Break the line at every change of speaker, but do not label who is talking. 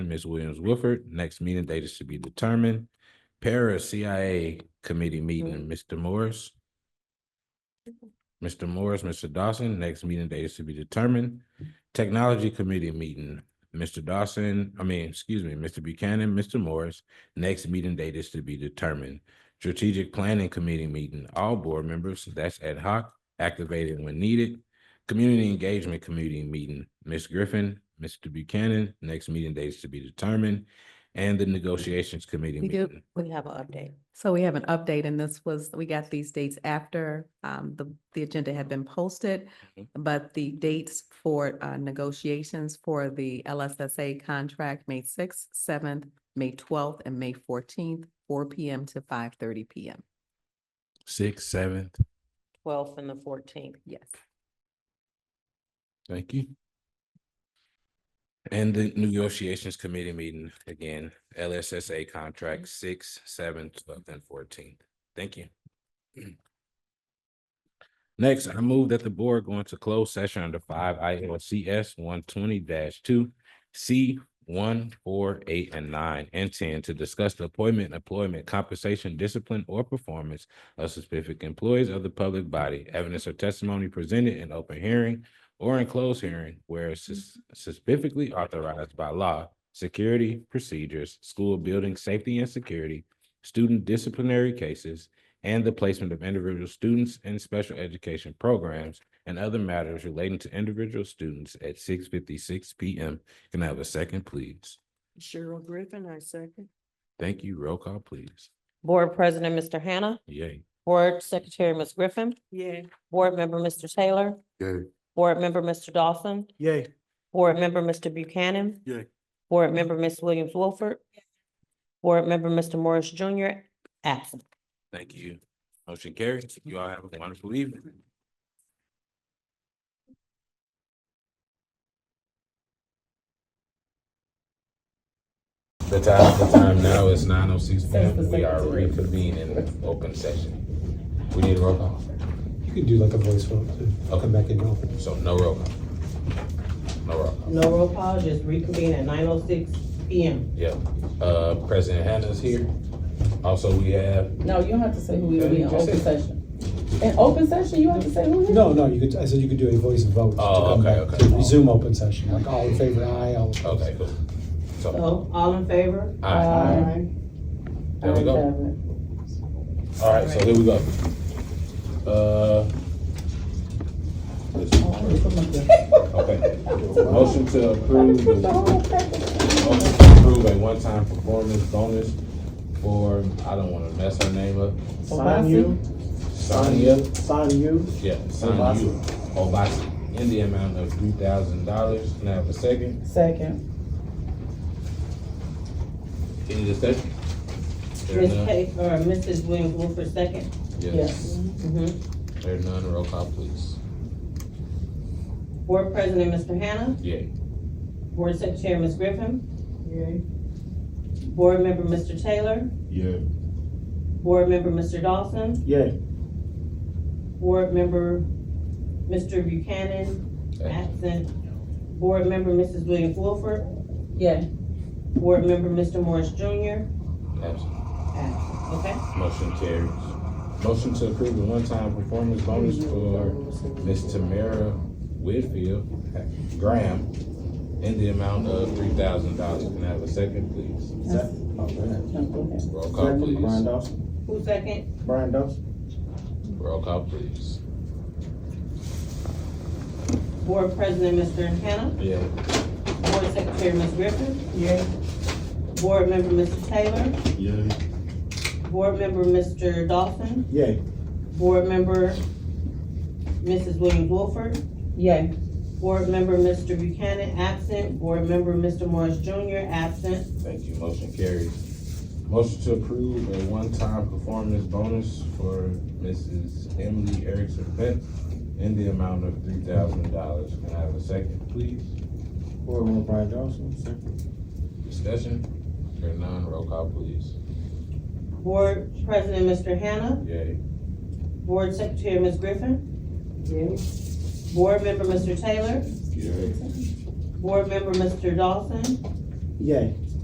Ms. Williams Wilford. Next meeting date is to be determined. Para CIA Committee
Mm-hmm.
meeting, Mr. Morris. Mr. Morris, Mr. Dawson, next meeting date is to be determined. Technology Committee meeting, Mr. Dawson, I mean, excuse me, Mr. Buchanan, Mr. Morris. Next meeting date is to be determined. Strategic Planning Committee meeting, all board members, that's ad hoc, activated when needed. Community Engagement Committee meeting, Ms. Griffin, Mr. Buchanan, next meeting dates to be determined. And the Negotiations Committee
We do.
meeting.
We have an update.
So we have an update and this was, we got these dates after um the the agenda had been posted.
Mhm.
Mm-hmm.
But the dates for uh negotiations for the LSSA contract, May sixth, seventh, May twelfth, and May fourteenth, four P M to five thirty P M.
Sixth, seventh,
Twelfth and the fourteenth.
Yes.
thank you. And the Negotiations Committee meeting, again, LSSA contract six, seven, twelve, and fourteen. Thank you. Next, I move that the board go into closed session under five ILCS one twenty two, C one, four, eight, and nine, and ten to discuss the appointment, employment, compensation, discipline, or performance of specific employees of the public body, evidence or testimony presented in open hearing or in closed hearing where sus- specifically authorized by law, security procedures, school building safety and security, student disciplinary cases, and the placement of individual students in special education programs and other matters relating to individual students at six fifty-six PM. Can I have a second, please?
Cheryl Griffin, I second.
Thank you. Roll call, please.
Board President, Mr. Hannah.
Yay.
Board Secretary, Ms. Griffin.
Yeah.
Board Member, Mr. Taylor.
Yay.
Board Member, Mr. Dawson.
Yay.
Board Member, Mr. Buchanan.
Yay.
Board Member, Ms. Williams Wilford. Board Member, Mr. Morris Junior, absent.
Thank you. Motion carries. You all have a wonderful evening. The time, the time now is nine oh six P M. We are reconvening in open session. We need a roll call,
You could do like a voice vote to come back in and open.
so no roll call. No roll call.
No roll call, just reconvene at nine oh six P M.
Yeah, uh, President Hannah's here. Also, we have,
No, you don't have to say who we
Yeah,
will be
you
in
just
open
said-
session. In open session, you have to say who we are.
No, no, you could, I said you could do a voice vote to
Oh,
come
okay,
back,
okay.
to resume open session, like all in favor, aye, all. opposed.
okay, cool. So,
So, all in favor?
aye. There we go. All right, so here we go. Uh. this is- Okay, motion to approve, the- motion to approve a one-time performance bonus for, I don't wanna mess her name up,
Sign you.
Sonia,
Sign you.
yeah, Sonia Obasi, in the amount of three thousand dollars. Can I have a second?
Second.
Any discussion? There
Ms.
none?
Kay, or Mrs. uh, Williams Wilford, second.
Yes,
Yes.
Mhm.
there none, roll call please.
Board President, Mr. Hannah.
Yeah.
Board Secretary, Ms. Griffin. Board Member, Mr. Taylor.
Yeah.
Board Member, Mr. Dawson.
Yay.
Board Member, Mr. Buchanan, absent. Board Member, Mrs. Williams Wilford.
Yeah.
Board Member, Mr. Morris Junior,
Absent.
absent. Okay?
Motion carries. Motion to approve the one-time performance bonus for Miss Tamara Whitfield Graham in the amount of three thousand dollars. Can I have a second, please?
oh,
No, go ahead.
Roll call,
Brian
please.
Dawson.
Who second?
Brian Dawson.
Roll call, please.
Board President, Mr. Hannah.
Yeah.
Board Secretary, Ms. Griffin. Yeah. Board Member, Mr. Taylor.
Yay.
Board Member, Mr. Dawson.
Yay.
Board Member, Mrs. Williams Wilford.
Yay.
Board Member, Mr. Buchanan, absent. Board Member, Mr. Morris Junior, absent.
Thank you. Motion carries. Motion to approve a one-time performance bonus for Mrs. Emily Erickson Peck in the amount of three thousand dollars. Can I have a second, please?
Board member Brian Dawson. Second.
Discussion? Hearing none, roll call, please.
Board President, Mr. Hannah.
Yay.
Board Secretary, Ms. Griffin. Board Member, Mr. Taylor.
Yay.
Board Member, Mr. Dawson.
Yay.